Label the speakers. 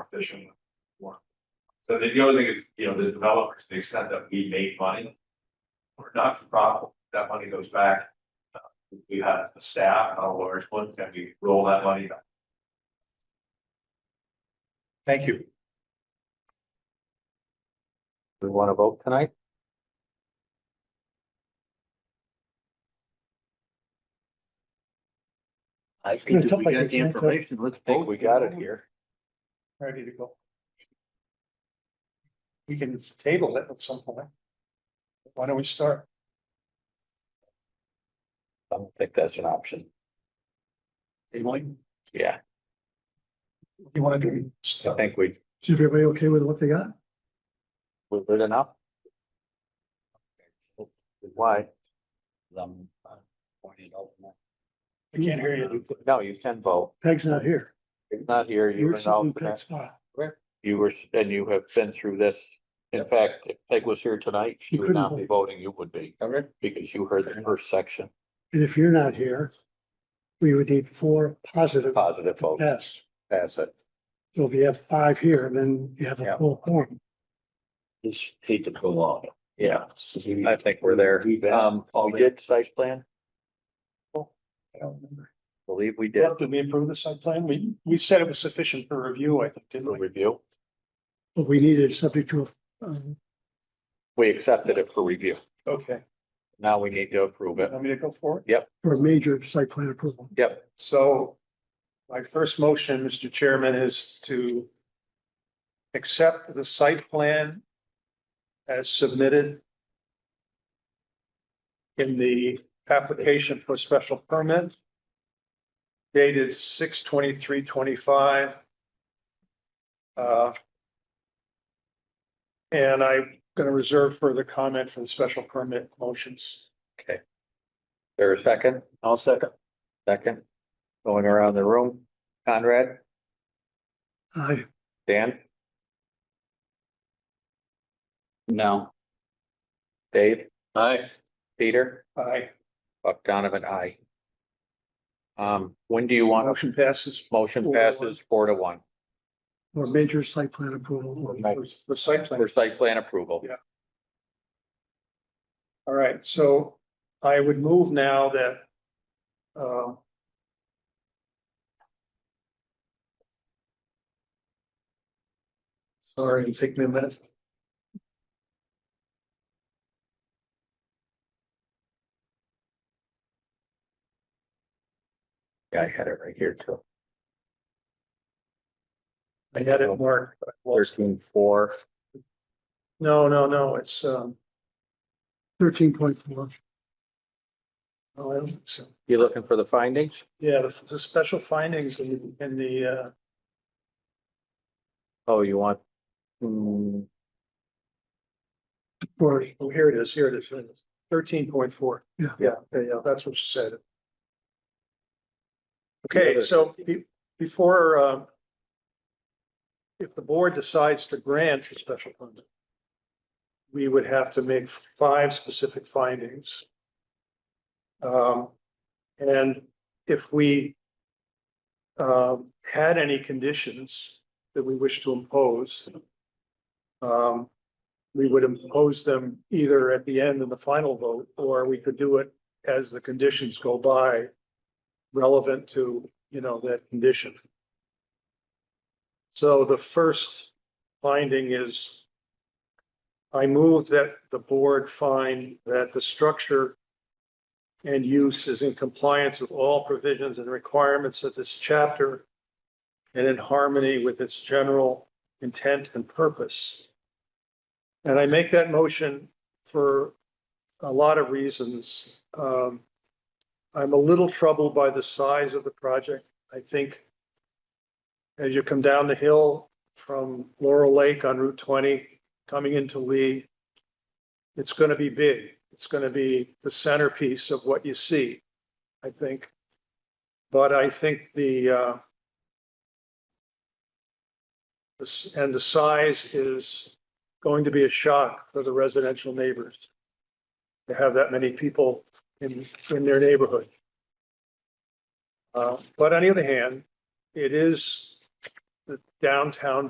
Speaker 1: competition. One. So the the other thing is, you know, the developers, to the extent that we make money. We're not for profit, that money goes back. uh, We have a staff, a large one, can we roll that money back?
Speaker 2: Thank you. We want to vote tonight?
Speaker 3: I
Speaker 4: gonna
Speaker 3: think if
Speaker 4: look
Speaker 3: we
Speaker 4: like we
Speaker 3: got the
Speaker 4: can't, uh,
Speaker 3: information, let's
Speaker 2: I think
Speaker 3: vote.
Speaker 2: we got it here.
Speaker 4: ready to go. We can table it at some point. Why don't we start?
Speaker 2: I don't think that's an option.
Speaker 4: Tabling.
Speaker 2: Yeah,
Speaker 4: You wanna do?
Speaker 2: I think we,
Speaker 4: Is everybody okay with what they got?
Speaker 2: we're good enough. Why?
Speaker 3: Um, uh, pointed out in that.
Speaker 4: I can't hear you.
Speaker 2: No, you can vote.
Speaker 4: Peg's not here.
Speaker 2: It's not here. You were an alternate. You were, and you have been through this. In fact, if Peg was here tonight, she
Speaker 4: You
Speaker 2: would
Speaker 4: couldn't
Speaker 2: not be voting. You would be
Speaker 3: Covered?
Speaker 2: because you heard the first section,
Speaker 4: And if you're not here, we would need four positive
Speaker 2: positive vote,
Speaker 4: yes.
Speaker 2: pass it.
Speaker 4: So if you have five here, then you have
Speaker 2: Yeah.
Speaker 4: full form.
Speaker 3: Just hate to go on.
Speaker 2: Yeah, I think we're there.
Speaker 3: We've been-
Speaker 2: Um, we did site plan,
Speaker 4: I don't remember.
Speaker 2: believe we did.
Speaker 4: Well, Did we approve the site plan? We, we said it was sufficient for review, I think, didn't
Speaker 2: for
Speaker 4: we?
Speaker 2: Review.
Speaker 4: But we needed subject to, um,
Speaker 2: We accepted it for review.
Speaker 4: okay,
Speaker 2: Now we need to approve it.
Speaker 4: want me to go for it?
Speaker 2: Yep.
Speaker 4: For a major site plan approval.
Speaker 2: Yep.
Speaker 4: So my first motion, Mr. Chairman, is to accept the site plan as submitted in the application for special permit dated six twenty-three twenty-five. Uh, And I'm going to reserve further comment for the special permit motions.
Speaker 2: There a second?
Speaker 3: I'll second.
Speaker 2: Second. Going around the room. Conrad,
Speaker 4: Aye.
Speaker 2: Dan,
Speaker 3: No.
Speaker 2: Dave,
Speaker 3: Aye.
Speaker 2: Peter,
Speaker 4: Aye.
Speaker 2: Buck Donovan, I. Um, when do you want,
Speaker 4: Motion passes
Speaker 2: motion passes four to one
Speaker 4: Or major site plan approval.
Speaker 2: Right.
Speaker 4: The site plan.
Speaker 2: for site plan approval.
Speaker 4: Yeah. All right, so I would move now that um, sorry, take me a minute.
Speaker 2: Yeah, I had it right here too.
Speaker 4: I had it marked. but I lost it.
Speaker 2: Thirteen, four.
Speaker 4: No, no, no, it's um. Thirteen point four. Oh, I don't think so.
Speaker 2: You looking for the findings?
Speaker 4: Yeah, the, the special findings in, in the uh,
Speaker 2: Oh, you want? Hmm,
Speaker 4: Or, oh, here it is, here it is, thirteen point four. Yeah. Yeah, yeah, yeah, that's what you said. Okay, so be- before, uh, if the board decides to grant a special permit, we would have to make five specific findings. Um, and if we um, had any conditions that we wish to impose, um, we would impose them either at the end in the final vote, or we could do it as the conditions go by relevant to, you know, that condition. So the first finding is I move that the board find that the structure and use is in compliance with all provisions and requirements of this chapter and in harmony with its general intent and purpose. And I make that motion for a lot of reasons. Um, I'm a little troubled by the size of the project. I think as you come down the hill from Laurel Lake on Route 20, coming into Lee, it's going to be big. It's going to be the centerpiece of what you see, I think. But I think the, uh, the s- and the size is going to be a shock for the residential neighbors to have that many people in, in their neighborhood. Uh, But on the other hand, it is the downtown